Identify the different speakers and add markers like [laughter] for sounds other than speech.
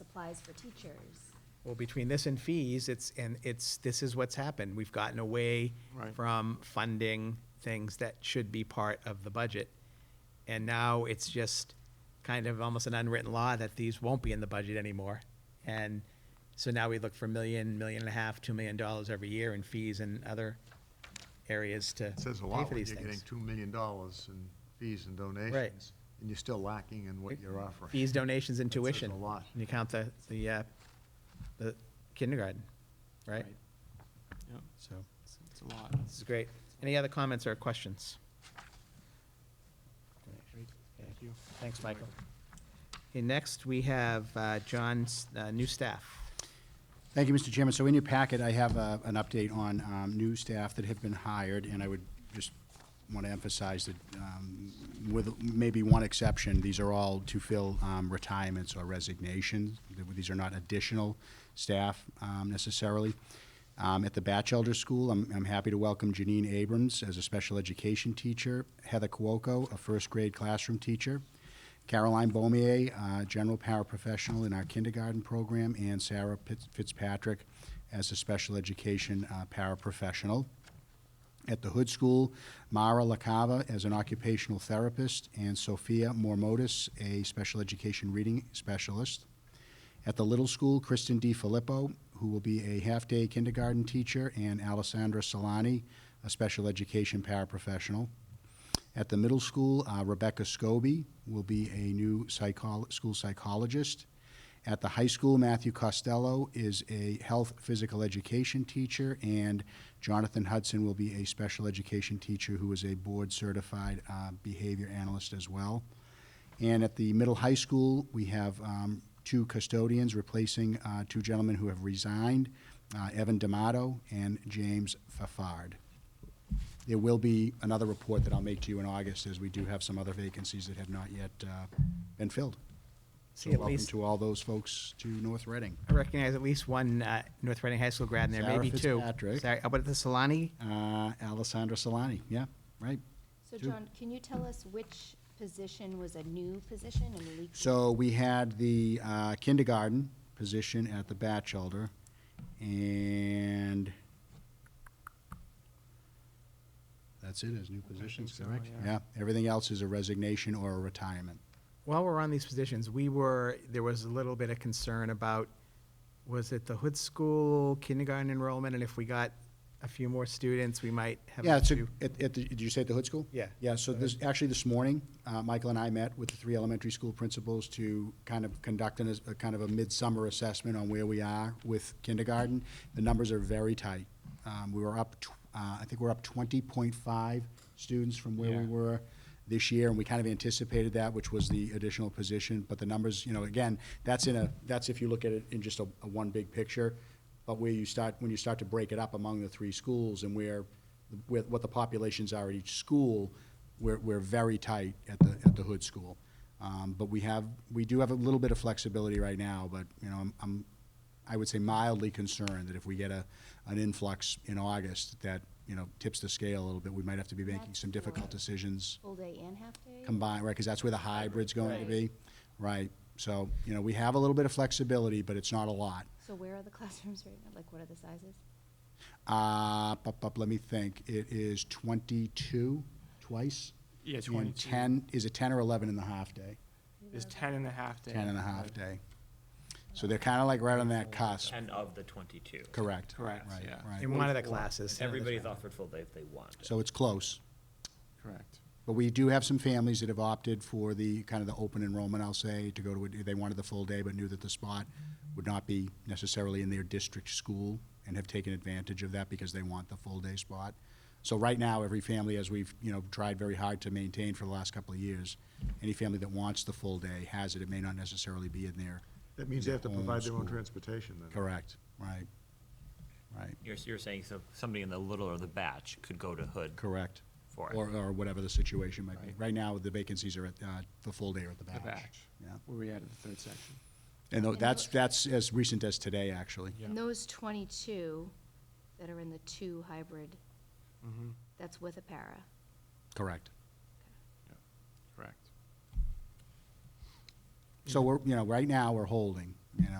Speaker 1: applies for teachers.
Speaker 2: Well, between this and fees, it's, and it's, this is what's happened. We've gotten away
Speaker 3: Right.
Speaker 2: from funding things that should be part of the budget. And now it's just kind of almost an unwritten law that these won't be in the budget anymore. And so now we look for million, million and a half, two million dollars every year in fees and other areas to
Speaker 3: It says a
Speaker 2: pay
Speaker 3: lot
Speaker 2: for
Speaker 3: when
Speaker 2: these
Speaker 3: you're getting
Speaker 2: things.
Speaker 3: two million dollars in fees and donations, and you're still lacking in what you're offering.
Speaker 2: Fees, donations, and
Speaker 3: That says a
Speaker 2: tuition.
Speaker 3: lot.
Speaker 2: And you count the, the, uh, the kindergarten, right?
Speaker 4: Right. Yep,
Speaker 2: So,
Speaker 4: it's it's a lot.
Speaker 2: this is great. Any other comments or questions?
Speaker 4: Thank you.
Speaker 2: Thanks, Michael. Okay, next, we have uh, John's uh, new staff.
Speaker 5: Thank you, Mr. Chairman. So in your packet, I have uh, an update on um, new staff that have been hired, and I would just want to emphasize that um, with maybe one exception, these are all to fill um, retirements or resignations. These are not additional staff um, necessarily. Um, At the Batchelder School, I'm I'm happy to welcome Janine Abrams as a special education teacher, Heather Cuoco, a first-grade classroom teacher, Caroline Beaumier, uh, general paraprofessional in our kindergarten program, and Sarah Pitz- Fitzpatrick as a special education uh, paraprofessional. At the Hood School, Mara LaCava as an occupational therapist, and Sophia Mormodis, a special education reading specialist. At the Little School, Kristen D. Filippo, who will be a half-day kindergarten teacher, and Alessandra Solani, a special education paraprofessional. At the middle school, uh, Rebecca Scobie will be a new psychol- school psychologist. At the high school, Matthew Costello is a health physical education teacher, and Jonathan Hudson will be a special education teacher who is a board certified uh, behavior analyst as well. And at the middle high school, we have um, two custodians replacing uh, two gentlemen who have resigned uh, Evan D'Amato and James Fafard. There will be another report that I'll make to you in August, as we do have some other vacancies that have not yet uh, been filled.
Speaker 2: See,
Speaker 5: So
Speaker 2: at
Speaker 5: welcome
Speaker 2: least,
Speaker 5: to all those folks to North Reading.
Speaker 2: I recognize at least one uh, North Reading High School grad in there,
Speaker 5: Sarah
Speaker 2: maybe two.
Speaker 5: Fitzpatrick.
Speaker 2: Sorry, how about the Solani?
Speaker 5: Uh, Alessandra Solani, yeah, right.
Speaker 1: So
Speaker 5: Two.
Speaker 1: John, can you tell us which position was a new position and leaked?
Speaker 5: So we had the uh, kindergarten position at the Batchelder, and that's it, as new positions,
Speaker 4: so,
Speaker 5: correct?
Speaker 4: yeah.
Speaker 5: Yeah, everything else is a resignation or a retirement.
Speaker 2: While we're on these positions, we were, there was a little bit of concern about, was it the Hood School kindergarten enrollment? And if we got a few more students, we might have.
Speaker 5: Yeah,
Speaker 2: an
Speaker 5: it's a,
Speaker 2: issue.
Speaker 5: at, at, the- did you say at the hood school?
Speaker 2: Yeah.
Speaker 5: Yeah, so this, actually this morning, uh, Michael and I met with the three elementary school principals to kind of conduct an, a kind of a midsummer assessment on where we are with kindergarten. The numbers are very tight. Um, we were up, tw- uh, I think we're up twenty point five students from where we
Speaker 2: Yeah.
Speaker 5: were were this year, and we kind of anticipated that, which was the additional position, but the numbers, you know, again, that's in a, that's if you look at it in just a, a one big picture, but where you start, when you start to break it up among the three schools and where, where, what the populations are at each school, we're, we're very tight at the, at the hood school. Um, but we have, we do have a little bit of flexibility right now, but, you know, I'm, I'm, I would say mildly concerned that if we get a, an influx in August, that, you know, tips the scale a little bit, we might have to be making some
Speaker 1: That's
Speaker 5: difficult
Speaker 1: right.
Speaker 5: decisions
Speaker 1: Full day and half day?
Speaker 5: combined, right, because that's where the hybrid's going to
Speaker 1: Right.
Speaker 5: be, right? So, you know, we have a little bit of flexibility, but it's not a lot.
Speaker 1: So where are the [laughs] classrooms right now? Like, what are the sizes?
Speaker 5: Uh, up, up, let me think, it is twenty-two, twice?
Speaker 4: Yeah,
Speaker 5: And
Speaker 4: 22.
Speaker 5: Ten, is it ten or eleven in the half-day?
Speaker 4: There's ten and a half days.
Speaker 5: Ten and a half day. So they're kind of like right on that cusp,
Speaker 6: And of the twenty-two.
Speaker 5: correct?
Speaker 4: Correct,
Speaker 5: Right,
Speaker 4: yeah.
Speaker 5: right.
Speaker 2: In one of the classes.
Speaker 6: Everybody's offered full day if they want.
Speaker 5: So it's close.
Speaker 4: Correct.
Speaker 5: But we do have some families that have opted for the, kind of the open enrollment, I'll say, to go to, a- they wanted the full day, but knew that the spot would not be necessarily in their district school, and have taken advantage of that because they want the full day spot. So right now, every family, as we've, you know, tried very hard to maintain for the last couple of years, any family that wants the full day has it, it may not necessarily be in there.
Speaker 3: That means they have to
Speaker 5: Their own
Speaker 3: provide their own
Speaker 5: school.
Speaker 3: transportation then.
Speaker 5: Correct, right, right,
Speaker 6: You're, you're saying so somebody in the little or the batch could go to Hood
Speaker 5: correct.
Speaker 6: for
Speaker 5: Or,
Speaker 6: it.
Speaker 5: or whatever the situation might be.
Speaker 4: Right.
Speaker 5: Right now, the vacancies are at, uh, the full day or at the
Speaker 4: The
Speaker 5: batch.
Speaker 4: batch,
Speaker 5: Yeah.
Speaker 4: where we added the third section.
Speaker 5: And tho-
Speaker 1: And
Speaker 5: that's,
Speaker 1: those-
Speaker 5: that's as recent as today, actually.
Speaker 4: Yeah.
Speaker 1: And those twenty-two that are in the two hybrid,
Speaker 4: Mm-hmm,
Speaker 1: that's with a para?
Speaker 5: Correct.
Speaker 4: correct.
Speaker 5: So we're, you know, right now, we're holding.